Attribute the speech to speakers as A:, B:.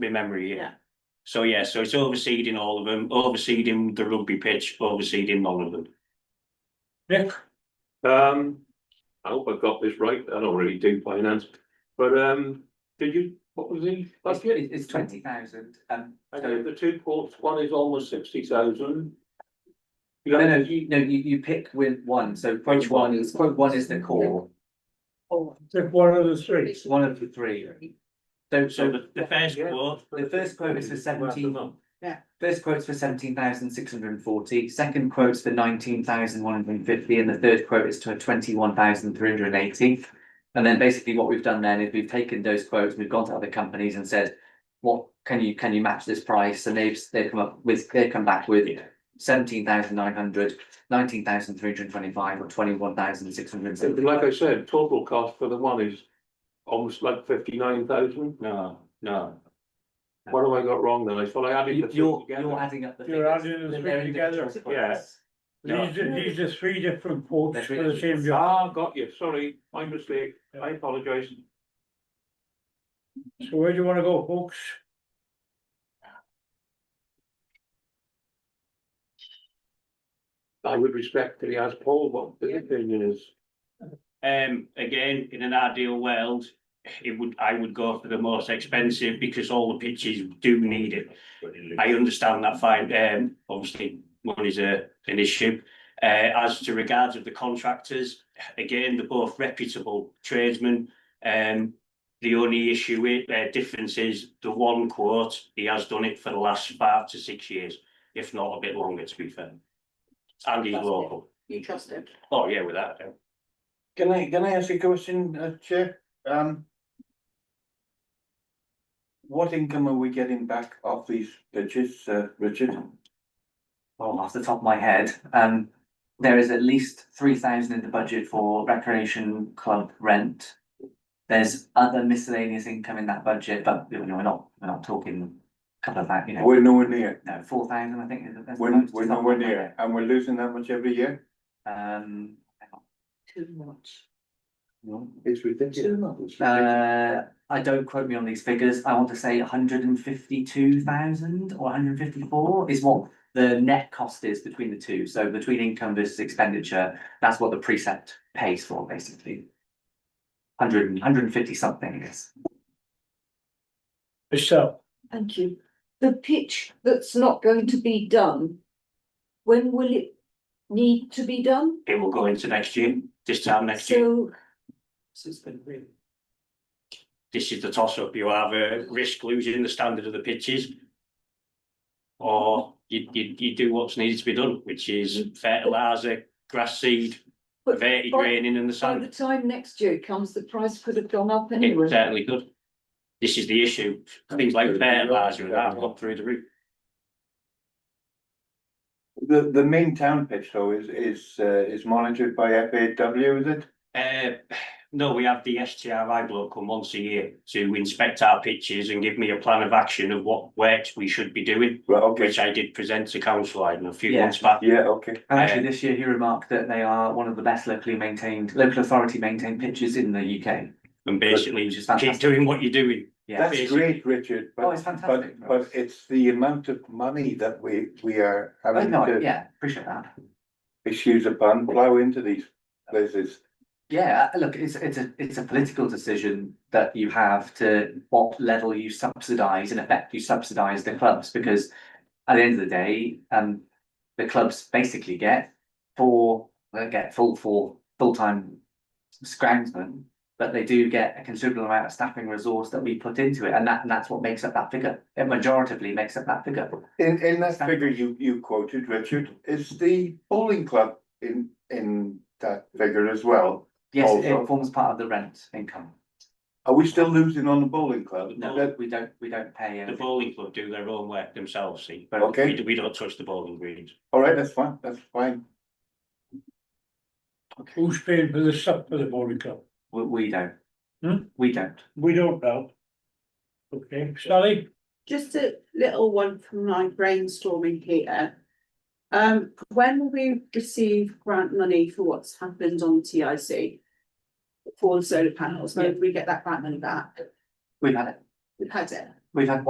A: my memory, yeah.
B: Yeah.
A: So yeah, so it's overseeding all of them, overseeding the rugby pitch, overseeding all of them.
C: Nick?
D: Um, I hope I got this right. I don't really do finance, but um, did you, what was the
E: It's,
D: budget?
E: it's twenty thousand, um,
D: I
E: so-
D: know the two courts, one is almost sixty thousand.
E: no, no, you, no, you, you pick with one, so point one is, point one is the core,
C: Oh. Tip one of the three.
E: it's one of the three.
A: So
E: So, so
A: the, the first quote,
E: the first quote is for seventeen,
B: Yeah.
E: first quote's for seventeen thousand six hundred and forty, second quote's for nineteen thousand one hundred and fifty, and the third quote is to twenty-one thousand three hundred and eighty. And then basically what we've done then is we've taken those quotes, we've gone to other companies and said, what, can you, can you match this price? And they've, they've come up with, they've come back with seventeen thousand nine hundred, nineteen thousand three hundred and twenty-five, or twenty-one thousand six hundred and seventy.
D: Like I said, total cost for the one is almost like fifty nine thousand.
A: no, no,
D: What have I got wrong then? I thought I added the
E: You,
D: two
E: you're,
D: together.
E: you're adding up the
C: You're
E: figures.
C: adding the
E: and they're
C: three together,
E: individual quotes.
D: yeah.
A: no.
C: These are, these are three different quotes
E: That's
C: for the
E: really-
C: same job.
D: Ah, got you. Sorry, my mistake. I apologize.
C: So where do you wanna go, folks?
D: I would respectfully ask Paul what his opinion is.
A: Um, again, in an ideal world, it would, I would go for the most expensive because all the pitches do need it. I understand that fine, um, obviously money's a, an issue. Uh, as to regards of the contractors, again, they're both reputable tradesmen. Um, the only issue with, uh, difference is the one quote, he has done it for the last five to six years, if not a bit longer, to be fair. And he's local.
B: You trust him.
A: Oh, yeah, without a doubt.
F: Can I, can I ask you a question, uh, Chair? Um. What income are we getting back off these pitches, uh, Richard?
E: Well, off the top of my head, um, there is at least three thousand in the budget for recreation club rent. There's other miscellaneous income in that budget, but you know, we're not, we're not talking a couple of that, you know,
F: We're nowhere near,
E: no, four thousand, I think. is- that's the
F: we're,
E: most
F: we're
E: off the top of
F: nowhere
E: my
F: near, and we're losing that much every year?
E: head. Um,
B: Too much.
F: It's ridiculous.
E: uh, I don't quote me on these figures, I want to say hundred and fifty-two thousand or hundred and fifty-four is what the net cost is between the two, so between income versus expenditure, that's what the precept pays for, basically. Hundred and, hundred and fifty something, I guess.
C: Michelle?
G: Thank you. The pitch that's not going to be done, when will it need to be done?
A: It will go into next year, this time next year.
G: So,
E: So it's been really.
A: this is the toss up, you either risk losing the standard of the pitches. Or you, you, you do what's needed to be done, which is fertiliser, grass seed,
G: Mm-hmm. But
A: verti
G: by-
A: draining and the
G: by the
A: sand.
G: time next year comes, the price could have gone up
A: It uh,
G: anyway.
A: certainly could. This is the issue, things like fertiliser and that have gone through the roof.
F: The, the main town pitch though is, is, uh, is monitored by FAW, is it?
A: Uh, no, we have the STRI bloke come once a year to inspect our pitches and give me a plan of action of what works we should be doing.
F: Right, okay,
A: Which I did present to council, I don't know, a few
E: Yeah.
A: months back.
F: yeah, okay.
E: And actually, this year he remarked that they are one of the best locally maintained, local authority maintained pitches in the UK.
A: And basically,
E: Which is
A: just keep
E: fantastic.
A: doing what you're doing.
E: Yeah,
F: That's great, Richard,
E: Oh, it's
F: but,
E: fantastic.
F: but, but it's the amount of money that we, we are
E: Oh,
F: having
E: no,
F: to
E: yeah, appreciate that.
F: excuse upon, plow into these places.
E: Yeah, uh, look, it's it's a it's a political decision that you have to what level you subsidise, in effect, you subsidise the clubs, because at the end of the day, um, the clubs basically get four, they get full for full-time scroungsmen, but they do get a considerable amount of staffing resource that we put into it, and that and that's what makes up that figure. It majoritively makes up that figure.
F: In, in that figure you, you quoted, Richard, is the bowling club in, in that figure as well?
E: Yes, it
F: Also-
E: forms part of the rent income.
F: Are we still losing on the bowling club?
E: No,
F: That-
E: we don't, we don't pay
A: The
E: anything.
A: bowling club do their own work themselves, see, but
F: Okay.
A: we, we don't touch the bowling greens.
F: All right, that's fine, that's fine.
C: Who's paying for the sub for the bowling club?
E: We we don't.
C: Hmm?
E: We don't.
C: We don't know. Okay, Sally?
B: Just a little one from my brainstorming here. Um, when will we receive grant money for what's happened on TIC? For the solar panels, when do we get that grant money back?
E: We've had it.
B: We've had it.
E: We've had